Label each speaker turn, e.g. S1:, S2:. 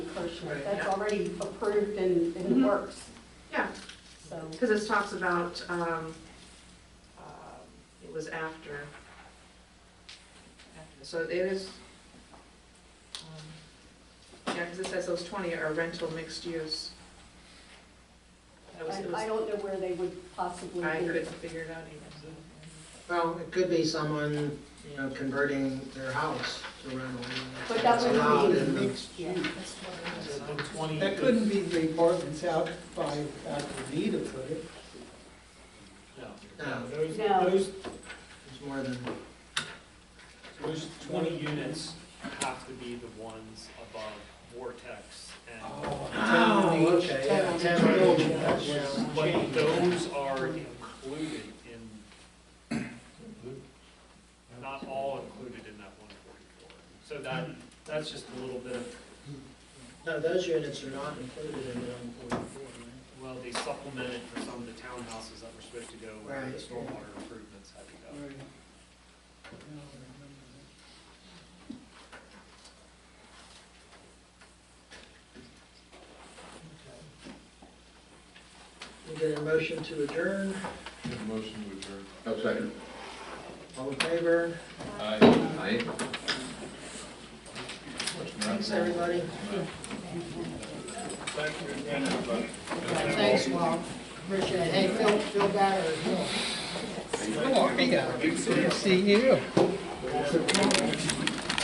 S1: portion.
S2: Right.
S1: That's already approved and in the
S3: Mhm.
S1: works.
S3: Yeah.
S1: So,
S3: Because this talks about, um, uh, it was after. after, So it is, um, yeah, because it says those 20 are rental mixed use. That was-
S1: I
S3: it
S1: I
S3: was-
S1: don't know where they would possibly
S3: I
S1: be.
S3: couldn't figure it out either.
S2: Well, it could be someone, you know, converting their house to rental.
S1: But that would
S2: Allowed
S1: be-
S2: in the-
S1: Yeah.
S4: That couldn't be the apartments out by Dr. Nita, could it?
S2: No,
S5: Those,
S1: No.
S5: those,
S2: it's more than,
S5: those twenty units have to be the ones above Vortex
S4: Oh.
S5: and.
S4: Ten on each.
S2: Oh, okay,
S4: Ten on
S2: yeah,
S4: each
S2: ten on each,
S4: building.
S2: that's-
S5: But those are included in, not all included in that one forty-four. So that, that's just a little bit of,
S2: no, those units are not included in the one forty-four,
S5: well, they supplement it for some of the townhouses that were supposed to go where the
S2: Right.
S5: stormwater improvements had to go.
S4: Right.
S2: We get a motion to adjourn,
S6: Motion to adjourn.
S7: Oh, second.
S2: all in favor?
S6: Aye.
S7: Aye.
S2: Thanks, everybody.
S6: Thank you again, everybody.
S4: Thanks, Walt. Appreciate it. Hey, feel, feel better. How are you? Good to see you.